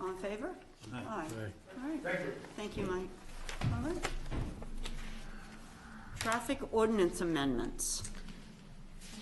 All in favor? Aye. All right. Thank you. Thank you, Mike. All right. Traffic ordinance amendments.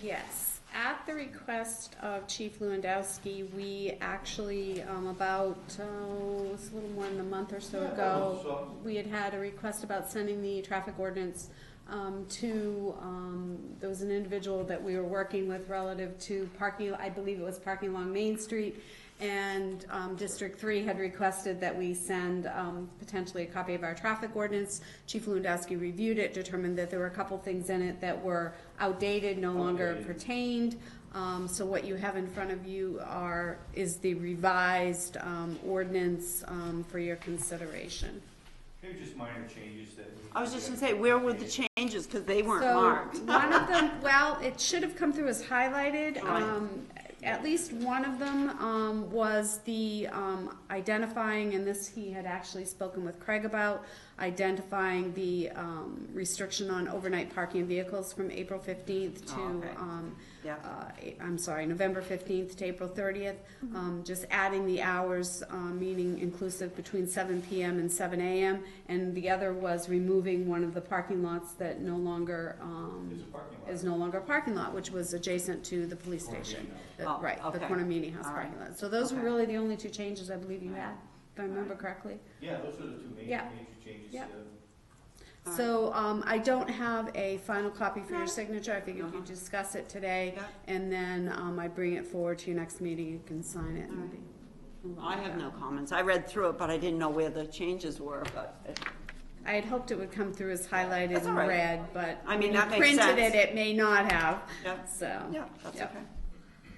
Yes, at the request of Chief Lewandowski, we actually, um, about, oh, it was a little more than a month or so ago, we had had a request about sending the traffic ordinance, um, to, um, there was an individual that we were working with relative to parking, I believe it was parking along Main Street, and um, District Three had requested that we send um, potentially a copy of our traffic ordinance. Chief Lewandowski reviewed it, determined that there were a couple things in it that were outdated, no longer pertained. Um, So what you have in front of you are, is the revised um, ordinance um, for your consideration. Maybe just minor changes that. we- I was just gonna say, where were the changes, because they weren't So, marked. One of them, well, it should have come through as highlighted. Right. Um, at least one of them, um, was the, um, identifying, and this he had actually spoken with Craig about, identifying the, um, restriction on overnight parking vehicles from April fifteenth to, Oh, okay. um, Yeah. uh, I'm sorry, November fifteenth to April thirtieth. Mm-hmm. Um, just adding the hours, uh, meaning inclusive between seven PM and seven AM. And the other was removing one of the parking lots that no longer, um, Is a parking lot. is no longer a parking lot, which was adjacent to the police Corner station. meeting The- Oh, Right, the okay. corner meeting house All right. parking lot. So those were Okay. really the only two changes I believe you had, if I remember correctly. Yeah, those are the two major, Yeah. major changes. Yeah. uh, All right. So, um, I don't have a final copy for No. your signature. I figured Uh-huh. you'd discuss it today. Yeah. And then, um, I bring it forward to your next meeting. You can sign it All right. and be. move on I with have that. no comments. I read through it, but I didn't know where the changes were, but it- I had hoped it would come through as highlighted That's all and right. red, but I when mean, you that makes sense. printed it, it may not have, Yeah. so. yeah, that's yeah. okay.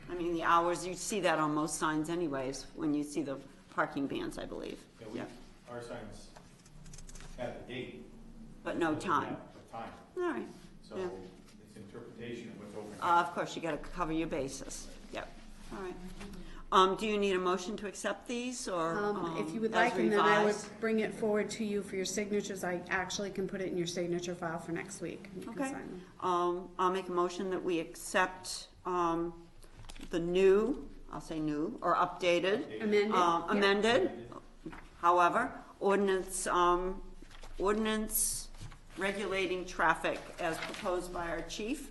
I mean, the hours, you see that on most signs anyways, when you see the parking bans, I believe. Yeah, Yeah, we, our signs have a date. but no time. A time, All right. so Yeah. it's interpretation of what's open. Uh, Of course, you gotta cover your bases. Yep, all right. Um, do you need a motion to accept these, or, Um, if you would as like, and then I would revised? bring it forward to you for your signatures, I actually can put it in your signature file for next week. and you can Okay. sign them. Um, I'll make a motion that we accept, um, the new, I'll say new, or updated, Amended? uh, Yeah. amended, however, ordinance, um, ordinance regulating traffic as proposed by our chief,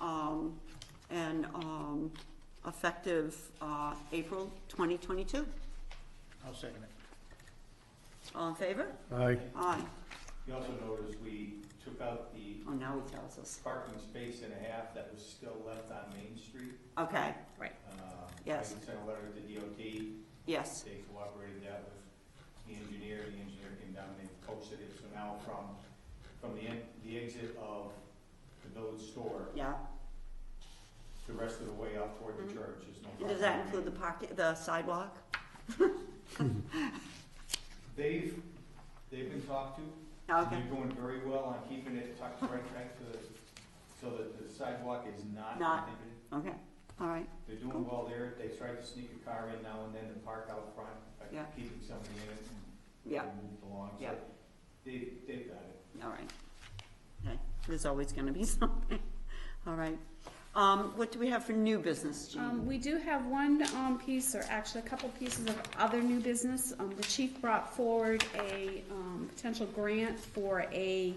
um, and, um, effective, uh, April twenty twenty-two. I'll second it. All in favor? Aye. Aye. You also notice we took out the Oh, now he tells us. parking space and a half that was still left on Main Street. Okay, Right. Uh, Yes. I sent a letter to DOT, yes, they cooperated that with the engineer, the engineer came down, they posted it, so now from, from the, en- the exit of the village store, yeah. the rest of the way out toward the church is no And problem. Mm-hmm. Does that include the pocket, the sidewalk? They've, they've been talked to, Oh, Okay, They're doing very well on keeping it tucked right back to the, so that the sidewalk is not Not- inhibited. okay, all right, They're doing well there, they tried to sneak a car in now and then and park out front, like Yeah. keeping somebody in it and yeah, they moved along, so Yeah. they, they've got it. all right. Okay, there's always gonna be something, all right. Um, what do we have for new business, Um, Jean? we do have one, um, piece, or actually a couple pieces of other new business. Um, the chief brought forward a, um, potential grant for a,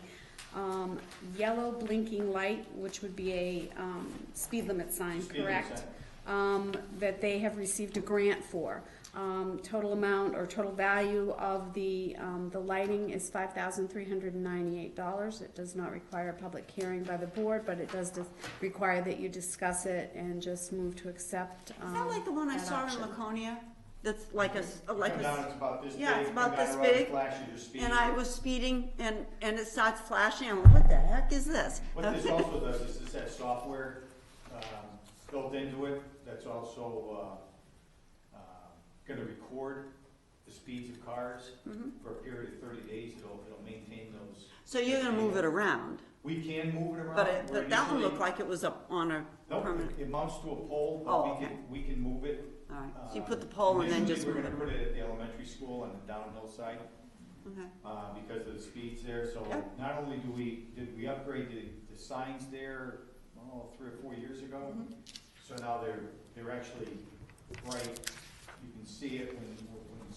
um, yellow blinking light, which would be a, um, speed limit sign, Speed limit correct? sign. Um, that they have received a grant for. Um, total amount or total value of the, um, the lighting is five thousand three hundred and ninety-eight dollars. It does not require a public hearing by the board, but it does dis- require that you discuss it and just move to accept, um, Is that like the one I that saw in option. Laconia? That's like a, s- Oh, like Come a, down, s- it's about this big, yeah, it's come about down this around the big, flash at your speed. and I was speeding, and, and it starts flashing, I'm like, what the heck is this? What this also does is it's that software, um, built into it, that's also, uh, uh, gonna record the speeds of cars Mhm. for a period of thirty days, it'll, it'll maintain those. So you're gonna move it around, We can move it around. but it, We're but that one usually- looked like it was up on a Nope, permanent, it mounts to a pole, Oh, but we okay. can, we can move it. all right. So you uh, put the pole and then initially, just move it. we're gonna put it at the elementary school on the downhill side, Okay. uh, because of the speeds there, so Yeah. not only do we, did we upgrade the, the signs there, oh, three or four years ago? So now they're, they're actually bright, you can see it when,